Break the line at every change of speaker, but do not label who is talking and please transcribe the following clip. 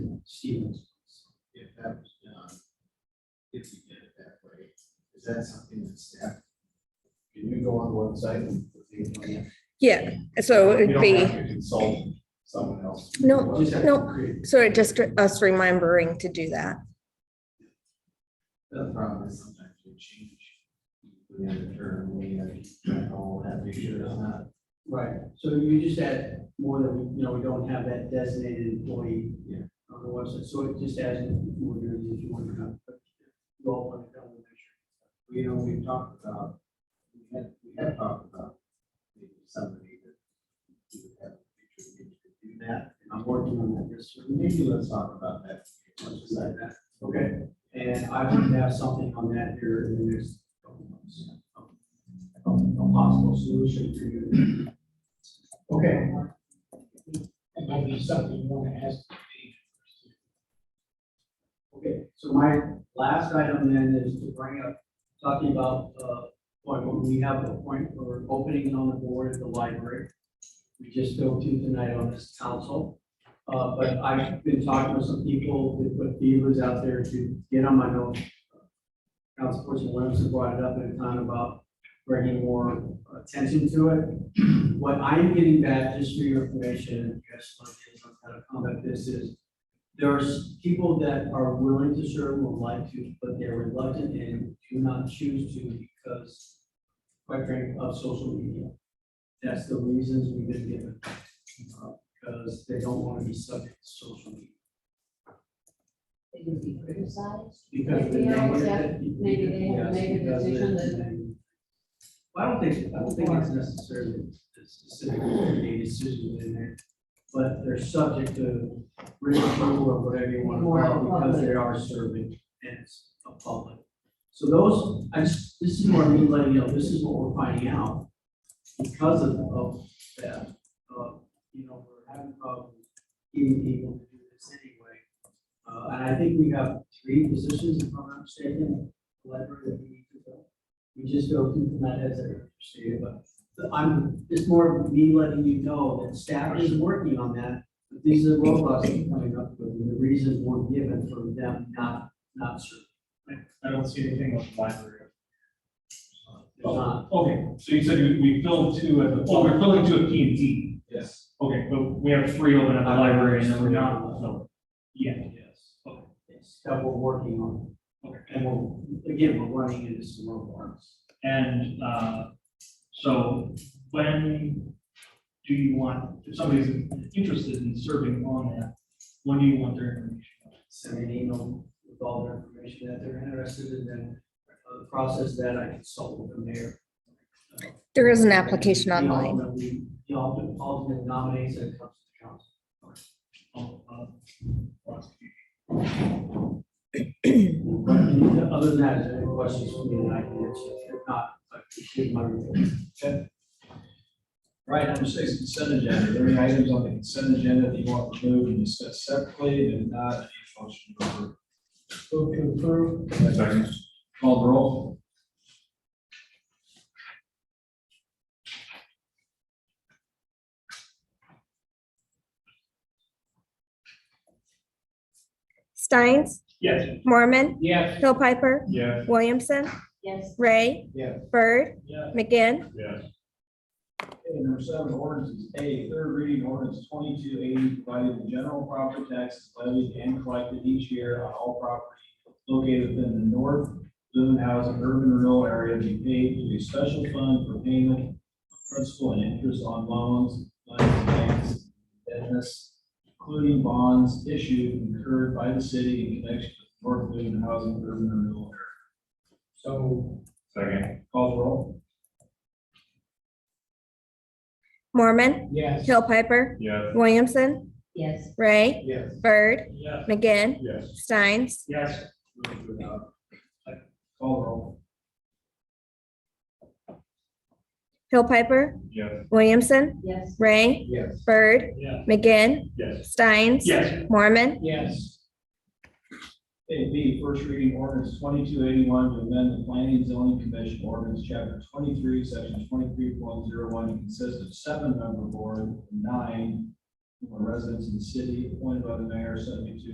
Stevens, if that was done, if you did it that way, is that something that staff? Can you go on the website and see the plan?
Yeah, so
You
it'd
don't
be,
have to Consult someone else.
No,
You just have to
no.
create-
so it just us remembering to do that.
The problem is sometimes we change. We have a term, we have, to know that we should or not.
Right, so you just add more than, you know, we don't have that designated employee.
Yeah.
On the website, so it just adds more than if you want to have. but You all want to come and make
you know, we talked about, we had, we had talked about maybe somebody that we would have a future meeting to do that, and I'm working on that, this, maybe let's talk about that. Let's decide that. Okay.
sure. And I would have something on that here in the next couple months. A a possible solution for you.
Okay.
It might be something you want to ask. the agent.
Okay, so my last item then is to bring up, talking about, uh, point when we have a point for opening on the board at the library. We just go to tonight on this council. Uh, but I've been talking to some people that put beavers out there to get on my notes. Councilperson Williamson brought it up at a time about bringing more attention to it. What I'm getting back, just for your information, you guys, I'm gonna comment this is, there's people that are willing to serve, would like to, but they're reluctant and do not choose to because, quite frankly, of social media. That's the reasons we've been given, uh, because they don't want to be subject to social media.
They could be criticized.
Because.
Maybe they
know
always
that-
have- maybe they
Yes,
have made a
because they-
decision that-
I don't think, I don't think it's necessarily a specific made decision in there, but they're subject to ridicule or whatever you want to call it, because they are serving as a public. So those, I just, this is more me letting you know, this is what we're finding out because of, of that, uh, you know, we're having problems getting people to do this anyway. Uh, and I think we have three positions, if I'm not mistaken, library that we need to fill. We just go through that as a stated, but the- I'm, it's more of me letting you know that staff is working on that. But these are the roadblocks that are coming up with, and the reasons were given for them not, not serving.
I don't see anything with the library.
They're not,
Okay, so you said we- we filled two at the, well, we're filling two at P and D.
Yes.
Okay, but we have three open at the library and then we're not, so. Yeah.
yes, it's that we're working on,
Okay.
and we're, again, we're running into some roadblocks.
And, uh, so when do you want, if somebody's interested in serving on that, when do you want their information?
send me an email with all their information that they're interested in, then uh, the process that I consult with the mayor.
There is an application
And the
online.
ultimate- The ultimate ultimate nominates that comes to the council.
Oh, uh,
But Other than that, is there any questions for me that I can answer? If not, I appreciate my report.
Right, number six, consent agenda. Are there any items on the consent agenda that you want removed and discussed separately and not any motion to approve? Move to approve. Second. Call the roll.
Steins,
Yes.
Mormon,
Yes.
Hill Piper,
Yes.
Williamson,
Yes,
Ray,
Yeah.
Bird,
Yes.
McGinn,
Yes.
Okay, number seven, ordinance is A, third reading ordinance twenty-two eighty, providing the general property taxes levied and collected each year on all property located within the North Bloomhouse urban rural area be paid to a special fund for payment of principal and interest on loans, loans, banks, business, including bonds issued incurred by the city in connection with North Bloomhouse urban rural area. So. Second. Call the roll.
Mormon,
Yes.
Hill Piper,
Yes.
Williamson,
yes,
Ray,
Yes.
Bird,
Yes.
McGinn,
Yes.
Steins,
Yes.
Move to adopt. Call the roll.
Hill Piper,
Yes.
Williamson,
yes,
Ray,
Yes.
Bird,
Yes.
McGinn,
Yes.
Steins,
Yes.
Mormon,
Yes. A B, first reading ordinance twenty-two eighty-one to amend the planning and zoning commission ordinance, chapter twenty-three, section twenty-three point zero one, to consist of seven member board, nine who are residents in the city, appointed by the mayor, subject to